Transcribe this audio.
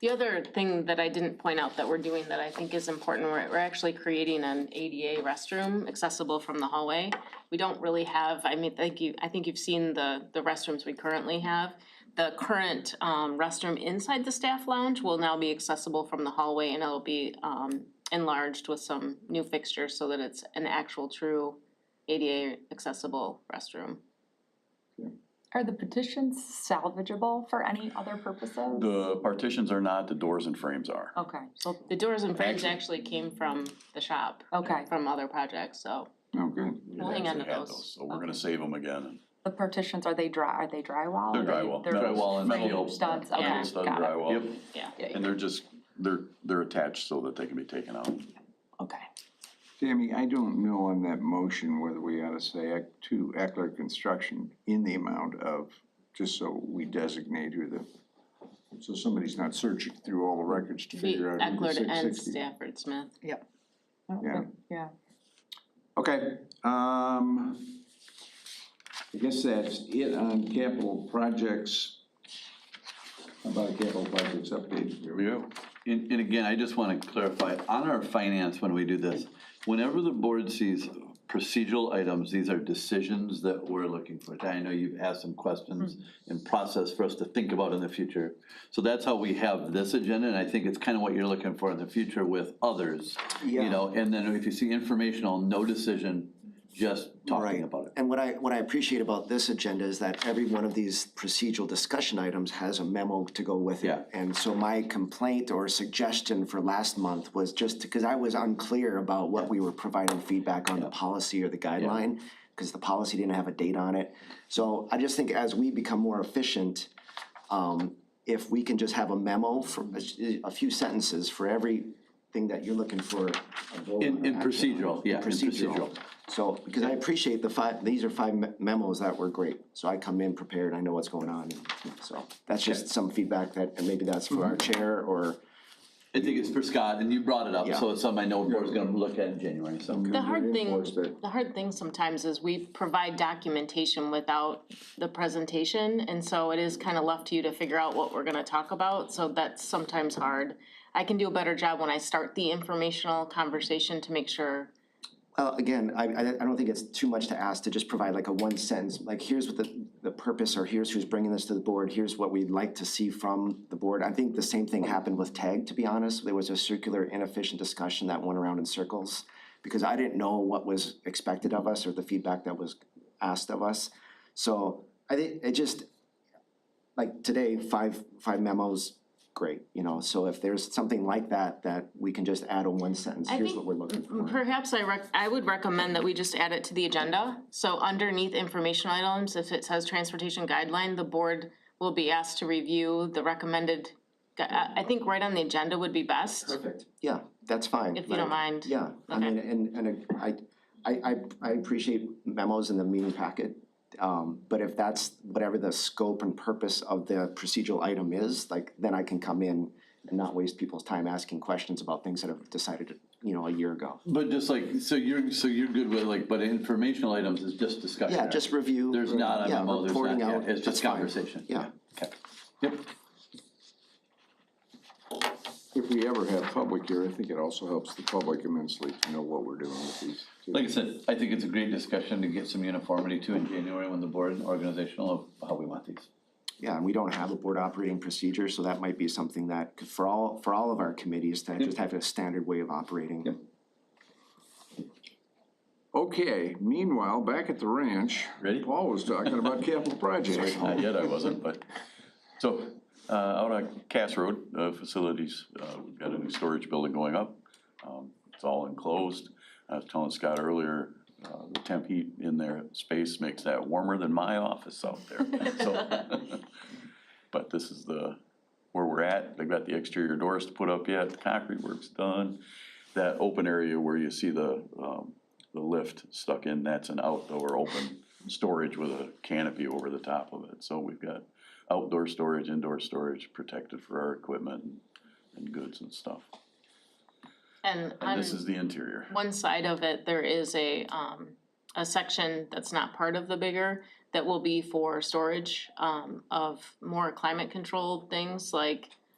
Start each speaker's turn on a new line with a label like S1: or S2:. S1: The other thing that I didn't point out that we're doing that I think is important, we're, we're actually creating an ADA restroom accessible from the hallway. We don't really have, I mean, thank you, I think you've seen the, the restrooms we currently have. The current, um, restroom inside the staff lounge will now be accessible from the hallway and it'll be, um, enlarged with some new fixtures so that it's an actual true ADA accessible restroom.
S2: Are the petitions salvageable for any other purposes?
S3: The partitions are not, the doors and frames are.
S1: Oh,
S2: Okay, so,
S1: The doors and frames actually came from the shop,
S2: okay,
S1: from other projects, so.
S3: Oh, good.
S1: We'll hang on to those.
S3: So we're gonna save them again.
S2: the partitions, are they dry, are they drywall?
S3: They're drywall.
S2: They're
S3: metal-
S4: Drywall and
S3: metal-
S4: steel.
S2: Studs, okay,
S3: Metal stud
S2: got it.
S3: drywall.
S4: Yep.
S3: And they're just, they're, they're attached so that they can be taken out.
S2: Okay.
S5: Sammy, I don't know on that motion whether we ought to say act- to Eckler Construction in the amount of, just so we designate who the, so somebody's not searching through all the records to
S1: Be
S5: figure out who the
S1: Eckler and
S5: six sixty.
S1: Stafford Smith.
S2: I don't
S5: Yeah.
S2: think- Yeah,
S5: Okay, um, I guess that's it on capital projects. How About capital projects update. Here we go.
S4: And, and again, I just wanna clarify, on our finance, when we do this, whenever the board sees procedural items, these are decisions that we're looking for. I know you've asked some questions and process for us to think about in the future. So that's how we have this agenda, and I think it's kinda what you're looking for in the future with others, you
S6: Yeah.
S4: know? And then if you see informational, no decision, just
S6: Right.
S4: talking about it.
S6: And what I, what I appreciate about this agenda is that every one of these procedural discussion items has a memo to go with it.
S4: Yeah.
S6: And so my complaint or suggestion for last month was just, because I was unclear about what we were providing feedback on the policy or the guideline, because the policy didn't have a date on it. So I just think as we become more efficient, um, if we can just have a memo for a- a few sentences for everything that you're looking for. a vote
S4: In,
S6: on
S4: in
S6: or action on.
S4: procedural, yeah, in procedural.
S6: So, because I appreciate the five, these are five me- memos that were great, so I come in prepared, I know what's going on, and so that's just some feedback that, and maybe that's for our chair or.
S4: I think it's for Scott, and you brought it up, so
S6: Yeah.
S4: it's something I know board's gonna look at in January, so.
S1: The hard thing,
S5: reinforce that.
S1: the hard thing sometimes is we provide documentation without the presentation, and so it is kind of left to you to figure out what we're gonna talk about, so that's sometimes hard. I can do a better job when I start the informational conversation to make sure,
S6: Well, again, I, I, I don't think it's too much to ask to just provide like a one sentence, like here's what the, the purpose, or here's who's bringing this to the board, here's what we'd like to see from the board. I think the same thing happened with TAG, to be honest, there was a circular inefficient discussion that went around in circles. Because I didn't know what was expected of us or the feedback that was asked of us. So I think it just, like today, five, five memos, great, you know, so if there's something like that, that we can just add a one sentence,
S1: I
S6: here's
S1: think
S6: what we're looking for.
S1: perhaps I rec, I would recommend that we just add it to the agenda. So underneath informational items, if it says transportation guideline, the board will be asked to review the recommended. gu- I, I think right on the agenda would be best,
S6: Perfect. Yeah, that's fine.
S1: if you don't
S6: Like,
S1: mind.
S6: Yeah, I
S1: Okay.
S6: mean, and, and I, I, I, I appreciate memos in the meeting packet. Um, but if that's whatever the scope and purpose of the procedural item is, like, then I can come in and not waste people's time asking questions about things that have decided, you know, a year ago.
S4: But just like, so you're, so you're good with like, but informational items is just discussion.
S6: Yeah, just review.
S4: There's not a
S6: yeah,
S4: memo, there's not,
S6: reporting
S4: yeah,
S6: out,
S4: it's
S6: that's
S4: just
S6: fine.
S4: conversation.
S6: Yeah.
S4: Okay. Yep,
S5: If we ever have public here, I think it also helps the public immensely to know what we're doing with these.
S4: like I said, I think it's a great discussion to get some uniformity to in January when the board and organizational of how we want these.
S6: Yeah, and we don't have a board operating procedure, so that might be something that, could- for all, for all of our committees, that just have a standard way of operating.
S5: Okay, meanwhile, back at the ranch.
S3: Ready?
S5: Paul was talking about capital projects.
S3: Not yet, I wasn't, but, so, uh, out on Cass Road, uh, facilities, uh, we've got a new storage building going up. Um, It's all enclosed. I was telling Scott earlier, uh, the temp heat in their space makes that warmer than my office out there, so. But this is the, where we're at. They've got the exterior doors to put up yet, the concrete work's done. That open area where you see the, um, the lift stuck in, that's an outdoor open storage with a canopy over the top of it. So we've got outdoor storage, indoor storage protected for our equipment and- and goods and stuff. And
S1: And on
S3: this is the interior.
S1: one side of it, there is a, um, a section that's not part of the bigger that will be for storage, um, of more climate controlled things like